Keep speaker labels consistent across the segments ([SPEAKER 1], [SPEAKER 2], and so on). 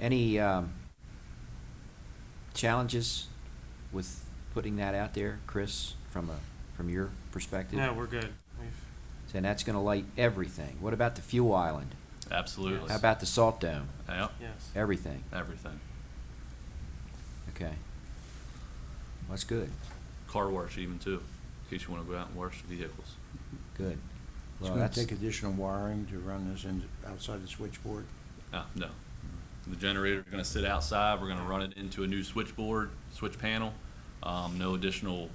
[SPEAKER 1] Any um, challenges with putting that out there, Chris, from a, from your perspective?
[SPEAKER 2] No, we're good. We've,
[SPEAKER 1] And that's gonna light everything. What about the fuel island?
[SPEAKER 3] Absolutely.
[SPEAKER 1] How about the salt dome?
[SPEAKER 3] Yep,
[SPEAKER 2] yes.
[SPEAKER 1] Everything,
[SPEAKER 3] everything.
[SPEAKER 1] okay. That's good,
[SPEAKER 3] Car wash even too, in case you want to go out and wash the vehicles.
[SPEAKER 1] good.
[SPEAKER 4] It's
[SPEAKER 1] Well,
[SPEAKER 4] gonna
[SPEAKER 1] that's-
[SPEAKER 4] take additional wiring to run this in, outside the switchboard.
[SPEAKER 3] Ah, no. The generator's gonna sit outside, we're gonna run it into a new switchboard, switch panel, um, no additional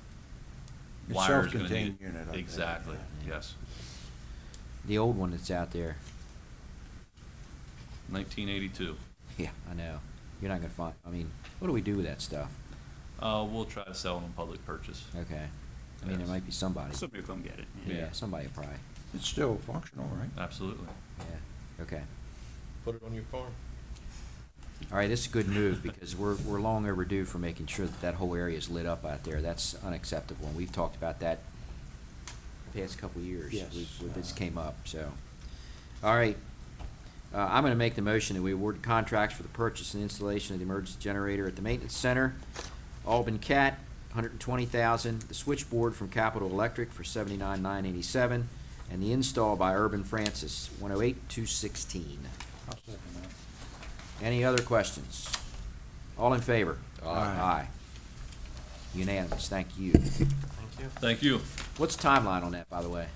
[SPEAKER 4] It's
[SPEAKER 3] wires gonna need.
[SPEAKER 4] self-contained unit, I think,
[SPEAKER 3] Exactly,
[SPEAKER 1] yeah.
[SPEAKER 3] yes.
[SPEAKER 1] The old one that's out there,
[SPEAKER 3] Nineteen eighty-two.
[SPEAKER 1] yeah, I know. You're not gonna find, I mean, what do we do with that stuff?
[SPEAKER 3] Uh, we'll try to sell it on public purchase.
[SPEAKER 1] Okay. I mean, there
[SPEAKER 3] Yes.
[SPEAKER 1] might be somebody.
[SPEAKER 5] Somebody will come get it.
[SPEAKER 1] Yeah, somebody will probably,
[SPEAKER 4] It's still functional, right?
[SPEAKER 3] Absolutely.
[SPEAKER 1] yeah, okay.
[SPEAKER 6] Put it on your farm.
[SPEAKER 1] All right, this is a good move because we're, we're long overdue for making sure that that whole area is lit up out there. That's unacceptable, and we've talked about that the past couple of years.
[SPEAKER 4] Yes,
[SPEAKER 1] We- we- This
[SPEAKER 4] uh,
[SPEAKER 1] came up, so. All right, uh, I'm gonna make the motion that we award contracts for the purchase and installation of the emergency generator at the maintenance center. Albin Cat, hundred and twenty thousand, the switchboard from Capital Electric for seventy-nine, nine eighty-seven, and the install by Urban Francis, one oh eight, two sixteen.
[SPEAKER 4] I'll second that.
[SPEAKER 1] Any other questions? All in favor?
[SPEAKER 4] Aye. Aye.
[SPEAKER 1] Unanimous, thank you.
[SPEAKER 2] Thank you.
[SPEAKER 3] Thank you.
[SPEAKER 1] What's the timeline on that, by the way?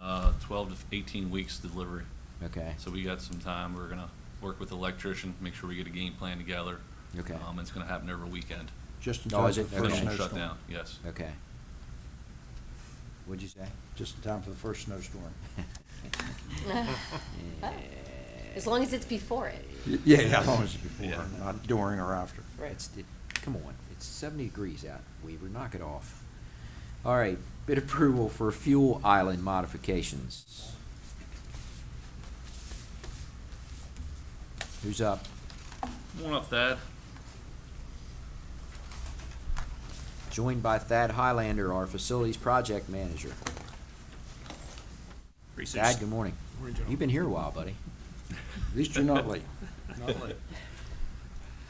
[SPEAKER 3] Uh, twelve to eighteen weeks delivery.
[SPEAKER 1] Okay,
[SPEAKER 3] So we got some time. We're gonna work with the electrician, make sure we get a game plan together.
[SPEAKER 1] Okay.
[SPEAKER 3] Um, it's gonna happen every weekend.
[SPEAKER 4] Just in
[SPEAKER 1] Oh,
[SPEAKER 4] time
[SPEAKER 1] is
[SPEAKER 4] for the
[SPEAKER 1] it
[SPEAKER 4] first
[SPEAKER 1] finished?
[SPEAKER 3] Everything will shut down,
[SPEAKER 4] snowstorm.
[SPEAKER 3] yes.
[SPEAKER 1] okay. What'd you say?
[SPEAKER 4] Just in time for the first snowstorm.
[SPEAKER 7] As long as it's before it.
[SPEAKER 4] Y- Yeah, how long is it before,
[SPEAKER 3] Yeah.
[SPEAKER 4] not during or after?
[SPEAKER 1] It's, it, come on, it's seventy degrees out, Weaver, knock it off. All right, bid approval for fuel island modifications. Who's up?
[SPEAKER 3] Come on up, Thad.
[SPEAKER 1] Joined by Thad Highlander, our facilities project manager.
[SPEAKER 5] Research.
[SPEAKER 1] Thad, good morning.
[SPEAKER 6] Morning, gentlemen.
[SPEAKER 1] You've been here a while, buddy.
[SPEAKER 4] At least you're not late.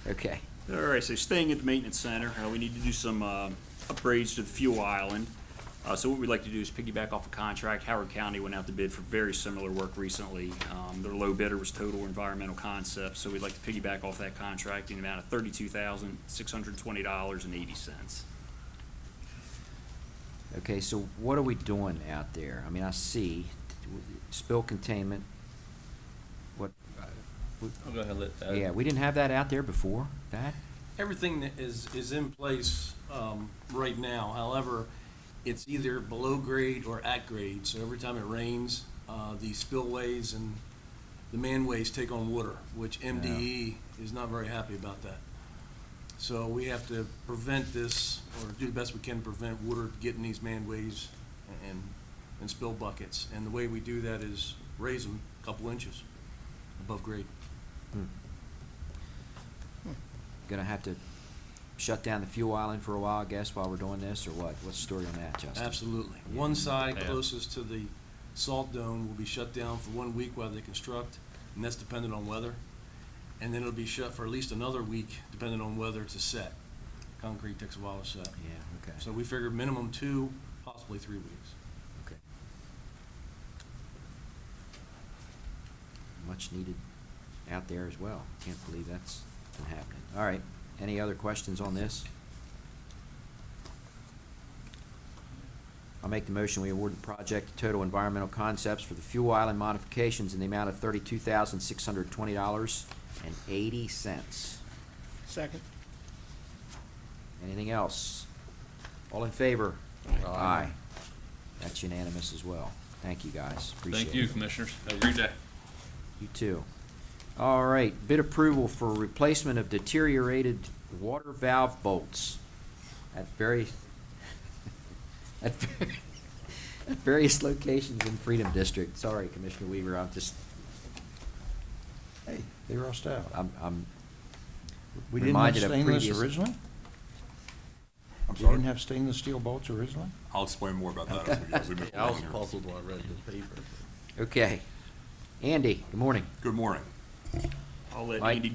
[SPEAKER 1] Okay.
[SPEAKER 5] All right, so staying at the maintenance center, uh, we need to do some um, upgrades to the fuel island. Uh, So what we'd like to do is piggyback off a contract. Howard County went out to bid for very similar work recently. Um, Their low bidder was Total Environmental Concepts, so we'd like to piggyback off that contract in the amount of thirty-two thousand, six hundred twenty dollars and eighty cents.
[SPEAKER 1] Okay, so what are we doing out there? I mean, I see spill containment. What, uh,
[SPEAKER 3] I'll go ahead and let Thad.
[SPEAKER 1] yeah, we didn't have that out there before, that?
[SPEAKER 8] Everything that is, is in place um, right now, however, it's either below grade or at grade, so every time it rains, uh, the spillways and the manways take on water, which MDE is not very happy about that. So we have to prevent this, or do the best we can to prevent water getting these manways and, and spill buckets. And the way we do that is raise them a couple inches above grade.
[SPEAKER 1] Gonna have to shut down the fuel island for a while, I guess, while we're doing this, or what? What's the story on that, Justin?
[SPEAKER 8] Absolutely. One side
[SPEAKER 3] Yeah.
[SPEAKER 8] closest to the salt dome will be shut down for one week while they construct, and that's dependent on weather. And then it'll be shut for at least another week, depending on weather to set. Concrete takes a while to set.
[SPEAKER 1] Yeah, okay.
[SPEAKER 8] So we figured minimum two, possibly three weeks.
[SPEAKER 1] Okay. Much needed out there as well. Can't believe that's been happening. All right, any other questions on this? I'll make the motion, we award the project to Total Environmental Concepts for the fuel island modifications in the amount of thirty-two thousand, six hundred twenty dollars and eighty cents.
[SPEAKER 4] Second.
[SPEAKER 1] Anything else? All in favor?
[SPEAKER 4] Aye.
[SPEAKER 1] That's unanimous as well. Thank you, guys. Appreciate it.
[SPEAKER 3] Thank you, Commissioners. Have a great day.
[SPEAKER 1] You too. All right, bid approval for replacement of deteriorated water valve bolts at very, at very- at various locations in Freedom District. Sorry, Commissioner Weaver, I'm just,
[SPEAKER 4] Hey, they rust out.
[SPEAKER 1] I'm, I'm,
[SPEAKER 4] We didn't have
[SPEAKER 1] reminded of
[SPEAKER 4] stainless
[SPEAKER 1] previous-
[SPEAKER 4] originally? We
[SPEAKER 9] sorry?
[SPEAKER 4] didn't have stainless steel bolts originally?
[SPEAKER 9] I'll explain more about that. as we go. We've been
[SPEAKER 6] I was
[SPEAKER 9] working here.
[SPEAKER 6] puzzled when I read the paper.
[SPEAKER 1] okay. Andy, good morning.
[SPEAKER 9] Good morning.
[SPEAKER 5] I'll let
[SPEAKER 1] Mike?
[SPEAKER 5] Andy